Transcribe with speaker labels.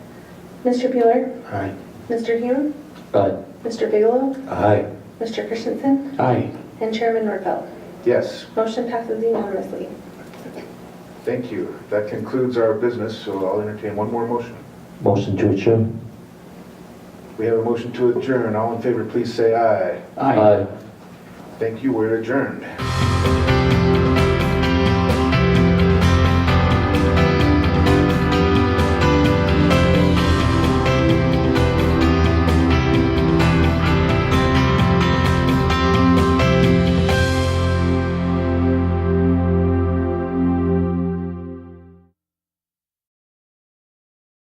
Speaker 1: Mr. Bueller?
Speaker 2: Aye.
Speaker 1: Mr. Hume?
Speaker 3: Aye.
Speaker 1: Mr. Bigelow?
Speaker 3: Aye.
Speaker 1: Mr. Christensen?
Speaker 3: Aye.
Speaker 1: And Chairman Norfelt.
Speaker 2: Yes,
Speaker 1: Motion passes unanimously.
Speaker 2: thank you. That concludes our business, so I'll entertain one more motion.
Speaker 3: Motion to adjourn.
Speaker 2: We have a motion to adjourn. All in favor, please say aye.
Speaker 3: Aye.
Speaker 2: Thank you, we're adjourned.